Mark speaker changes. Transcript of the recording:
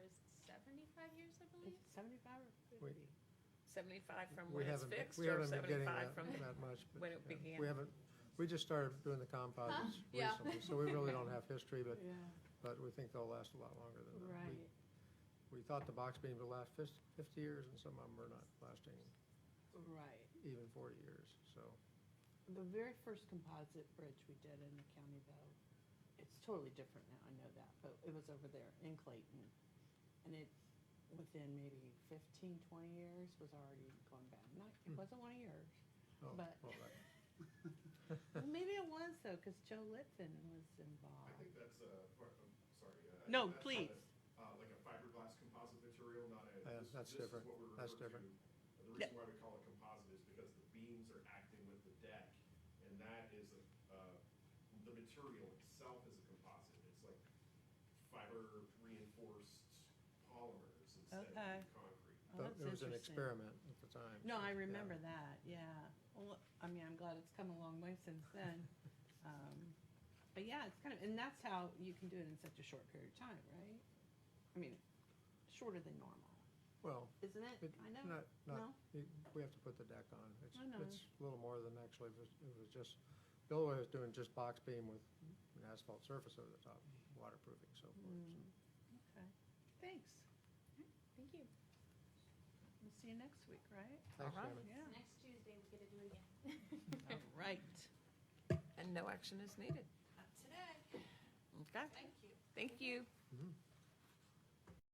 Speaker 1: dollars, I believe.
Speaker 2: Seventy-five or
Speaker 3: Wait.
Speaker 2: fifty?
Speaker 1: Seventy-five from
Speaker 3: We
Speaker 1: when it's
Speaker 3: haven't, been-
Speaker 1: fixed
Speaker 3: we
Speaker 1: or
Speaker 3: haven't been getting
Speaker 1: seventy-five
Speaker 3: that,
Speaker 1: from,
Speaker 3: that much, but.
Speaker 1: when it
Speaker 3: yeah,
Speaker 1: began.
Speaker 3: We haven't, we just started doing the composites
Speaker 1: Yeah.
Speaker 3: recently, so we really don't have history, but,
Speaker 2: Yeah,
Speaker 3: but we think they'll last a lot longer than that. We-
Speaker 2: right.
Speaker 3: We thought the box beams would last fif- fifty years, and some of them are not lasting
Speaker 2: Right.
Speaker 3: even forty years, so. oh,
Speaker 2: The very first composite bridge we did in the county though, it's totally different now, I know that, but it was over there in Clayton. And it, within maybe 15, 20 years, was already going bad. Not, it wasn't one of yours.
Speaker 3: oh,
Speaker 2: But-
Speaker 3: well, that-
Speaker 2: Well, maybe it was though, because Joe Litfin was involved. Oh,
Speaker 4: I think that's a, I'm sorry. uh, I
Speaker 2: No,
Speaker 4: think that's
Speaker 2: please.
Speaker 4: not a- uh, Like a fiberglass composite material, not a.
Speaker 3: Yeah,
Speaker 4: this-
Speaker 3: that's
Speaker 4: this is
Speaker 3: different.
Speaker 4: what we
Speaker 3: That's
Speaker 4: refer to-
Speaker 3: different.
Speaker 4: The reason why we call it composite is because the beams are acting with the deck, and that is, a- uh, the material itself is a composite. It's like fiber reinforced polymers instead of
Speaker 2: Okay.
Speaker 4: concrete.
Speaker 2: Oh,
Speaker 3: But
Speaker 2: that's
Speaker 3: it was an
Speaker 2: interesting.
Speaker 3: experiment at the time.
Speaker 2: No,
Speaker 3: so,
Speaker 2: I
Speaker 3: yeah.
Speaker 2: remember that, yeah. Well, I mean, I'm glad it's come a long way since then. Um, But yeah, it's kind of, and that's how you can do it in such a short period of time, right? I mean, shorter than normal,
Speaker 3: Well,
Speaker 2: isn't it?
Speaker 3: it,
Speaker 2: I know,
Speaker 3: not,
Speaker 2: no?
Speaker 3: not, you- we have to put the deck on. It's,
Speaker 2: I know.
Speaker 3: it's a little more than actually, it was, it was just, Bill was doing just box beam with an asphalt surface over the top, waterproofing, so forth. so.
Speaker 2: Mm, Okay, thanks.
Speaker 1: thank you.
Speaker 2: We'll see you next week, right?
Speaker 3: Thanks,
Speaker 1: Uh-huh.
Speaker 3: Janet.
Speaker 2: Yeah,
Speaker 5: Next Tuesday, we get to do it again.
Speaker 2: all right.
Speaker 1: And no action is needed.
Speaker 5: Today,
Speaker 1: Okay,
Speaker 5: thank you.
Speaker 1: thank you.
Speaker 3: Mhm.